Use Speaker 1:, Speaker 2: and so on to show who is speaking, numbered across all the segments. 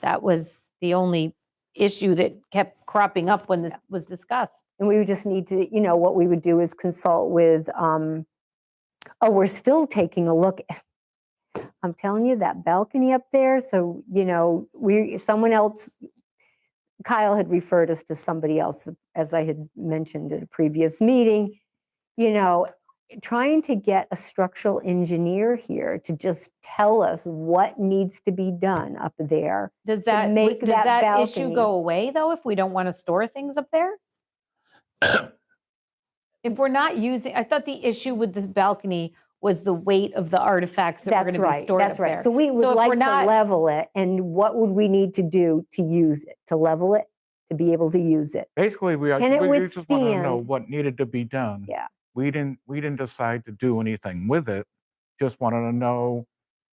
Speaker 1: That was the only issue that kept cropping up when this was discussed.
Speaker 2: And we would just need to, you know, what we would do is consult with, um, oh, we're still taking a look. at- I'm telling you, that balcony up there, so, you know, we, someone else, Kyle had referred us to somebody else, as I had mentioned at a previous meeting, you know, trying to get a structural engineer here to just tell us what needs to be done up there.
Speaker 1: Does that, w-
Speaker 2: make
Speaker 1: does
Speaker 2: that
Speaker 1: that issue
Speaker 2: balcony-
Speaker 1: go away though, if we don't want to store things up there? If we're not using, I thought the issue with this balcony was the weight of the artifacts that were
Speaker 2: That's
Speaker 1: going to be
Speaker 2: right,
Speaker 1: stored up
Speaker 2: that's
Speaker 1: there.
Speaker 2: right. So we
Speaker 1: So
Speaker 2: would
Speaker 1: if
Speaker 2: like
Speaker 1: we're
Speaker 2: to
Speaker 1: not-
Speaker 2: level it, and what would we need to do to use it, to level it, to be able to use it?
Speaker 3: Basically, we are,
Speaker 2: Can it
Speaker 3: we just want to know
Speaker 2: withstand-
Speaker 3: what needed to be done.
Speaker 2: Yeah.
Speaker 3: We didn't, we didn't decide to do anything with it. Just wanted to know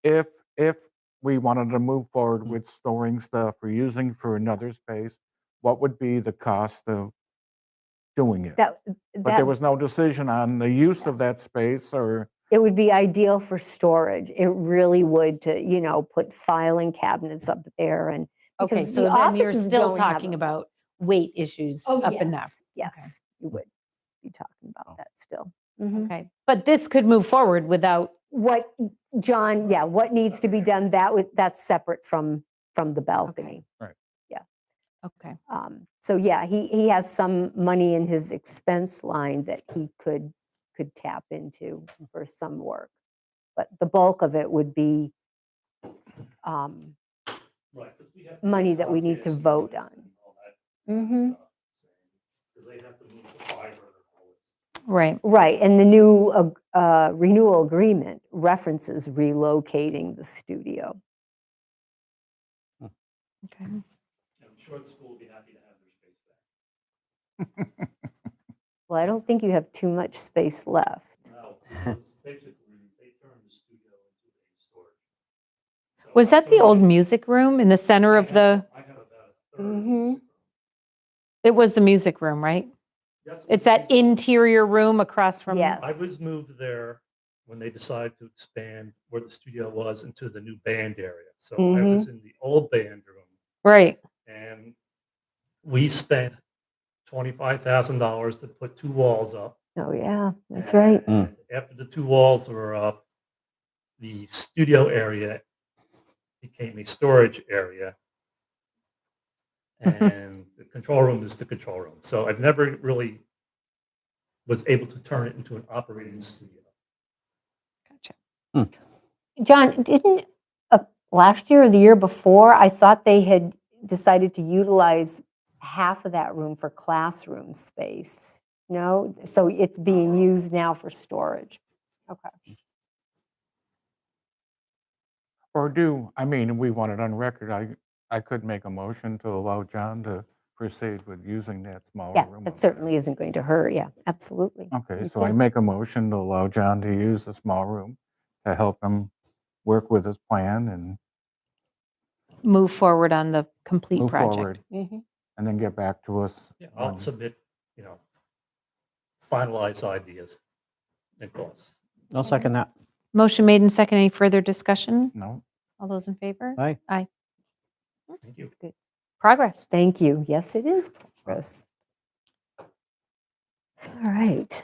Speaker 3: if, if we wanted to move forward with storing stuff or using for another space, what would be the cost of doing it?
Speaker 2: That-
Speaker 3: But there
Speaker 2: That,
Speaker 3: was no decision on the use of that space or,
Speaker 2: it would be ideal for storage. It really would to, you know, put filing cabinets up there and.
Speaker 1: Okay,
Speaker 2: because
Speaker 1: so
Speaker 2: the
Speaker 1: then you're
Speaker 2: offices
Speaker 1: still
Speaker 2: don't have
Speaker 1: talking
Speaker 2: them.
Speaker 1: about weight issues up in there.
Speaker 2: yes, Yes, you would be talking
Speaker 3: Oh.
Speaker 2: about that still. Mhm.
Speaker 1: Okay, but this could move forward without,
Speaker 2: What, John, yeah, what needs to be done, that would, that's separate from, from the balcony.
Speaker 1: okay.
Speaker 2: Um, So yeah, he, he has some money in his expense line that he could, could tap into for some work. But the bulk of it would be um,
Speaker 4: Right, 'cause we have to
Speaker 2: money
Speaker 4: get
Speaker 2: that we need to
Speaker 4: lobbyists and
Speaker 2: vote
Speaker 4: this
Speaker 2: on.
Speaker 4: and all that
Speaker 2: mhm.
Speaker 4: stuff. Because they have to move the fiber and all this.
Speaker 1: Right,
Speaker 2: Right, and the new ag- uh, renewal agreement references relocating the studio.
Speaker 1: okay.
Speaker 4: And I'm sure the school will be happy to have their space back.
Speaker 2: Well, I don't think you have too much space left.
Speaker 4: No, because basically, they turned the studio into a storage. So
Speaker 1: Was that the old
Speaker 4: actually,
Speaker 1: music room in the center
Speaker 4: I
Speaker 1: of
Speaker 4: have-
Speaker 1: the, Mm-hmm.
Speaker 4: I have about a third. of
Speaker 2: Mhm.
Speaker 4: this room.
Speaker 1: it was the music room, right?
Speaker 4: That's what
Speaker 1: It's that
Speaker 4: they-
Speaker 1: interior room across from?
Speaker 2: Yes.
Speaker 4: I was moved there when they decided to expand where the studio was into the new band area. So I
Speaker 1: Mm-hmm.
Speaker 2: Mhm.
Speaker 4: was in the old band room.
Speaker 1: Right,
Speaker 4: And we spent twenty-five thousand dollars to put two walls up.
Speaker 2: Oh, yeah, that's right.
Speaker 4: And After the two walls were up, the studio area became a storage area.
Speaker 2: Mm-hmm.
Speaker 4: And the control room is the control room. So I've never really was able to turn it into an operating studio.
Speaker 1: gotcha.
Speaker 2: John, didn't, uh, last year or the year before, I thought they had decided to utilize half of that room for classroom space? No, so it's
Speaker 3: Oh.
Speaker 2: being used now for storage.
Speaker 3: or do, I mean, we want it on record. I, I could make a motion to allow John to proceed with using that smaller
Speaker 2: Yeah,
Speaker 3: room. up there.
Speaker 2: that certainly isn't going to hurt, yeah, absolutely.
Speaker 3: Okay,
Speaker 2: You
Speaker 3: so I
Speaker 2: can-
Speaker 3: make a motion to allow John to use the small room to help him work with his plan and
Speaker 1: Move forward on the complete
Speaker 3: move
Speaker 1: project.
Speaker 3: forward. And then get back to us.
Speaker 4: Yeah, I'll
Speaker 3: when-
Speaker 4: submit, you know, finalized ideas and costs.
Speaker 5: I'll second that.
Speaker 1: Motion made and second. Any further discussion?
Speaker 3: No,
Speaker 1: All those in favor?
Speaker 5: Aye.
Speaker 4: Thank you.
Speaker 2: That's good.
Speaker 1: Progress.
Speaker 2: Thank you. Yes, it is progress. All right.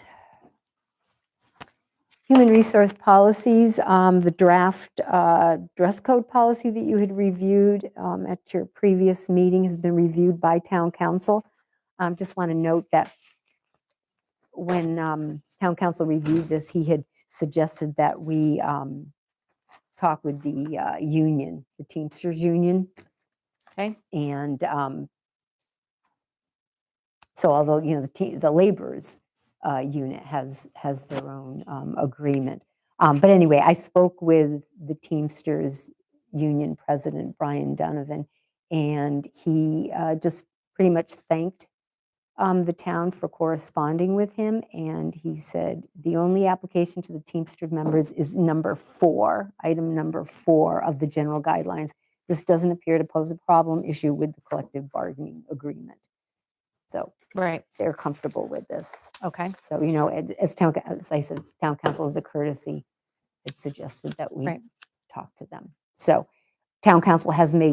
Speaker 2: Human resource policies, um, the draft uh, dress code policy that you had reviewed um, at your previous meeting has been reviewed by town council. Um, Just want to note that when um, town council reviewed this, he had suggested that we um, talk with the uh, union, the Teamsters Union,
Speaker 1: Okay,
Speaker 2: and um, so although, you know, the, te- the laborers uh, unit has, has their own um, agreement. Um, But anyway, I spoke with the Teamsters Union President, Brian Donovan, and he uh, just pretty much thanked um, the town for corresponding with him. And he said, the only application to the Teamster members is number four, item number four of the general guidelines. This doesn't appear to pose a problem issue with the collective bargaining agreement. So
Speaker 1: right,
Speaker 2: they're comfortable with this.
Speaker 1: okay.
Speaker 2: So, you know, and as town, coun- as I said, town council is a courtesy. It suggested that we
Speaker 1: Right.
Speaker 2: talk to them. So town council has made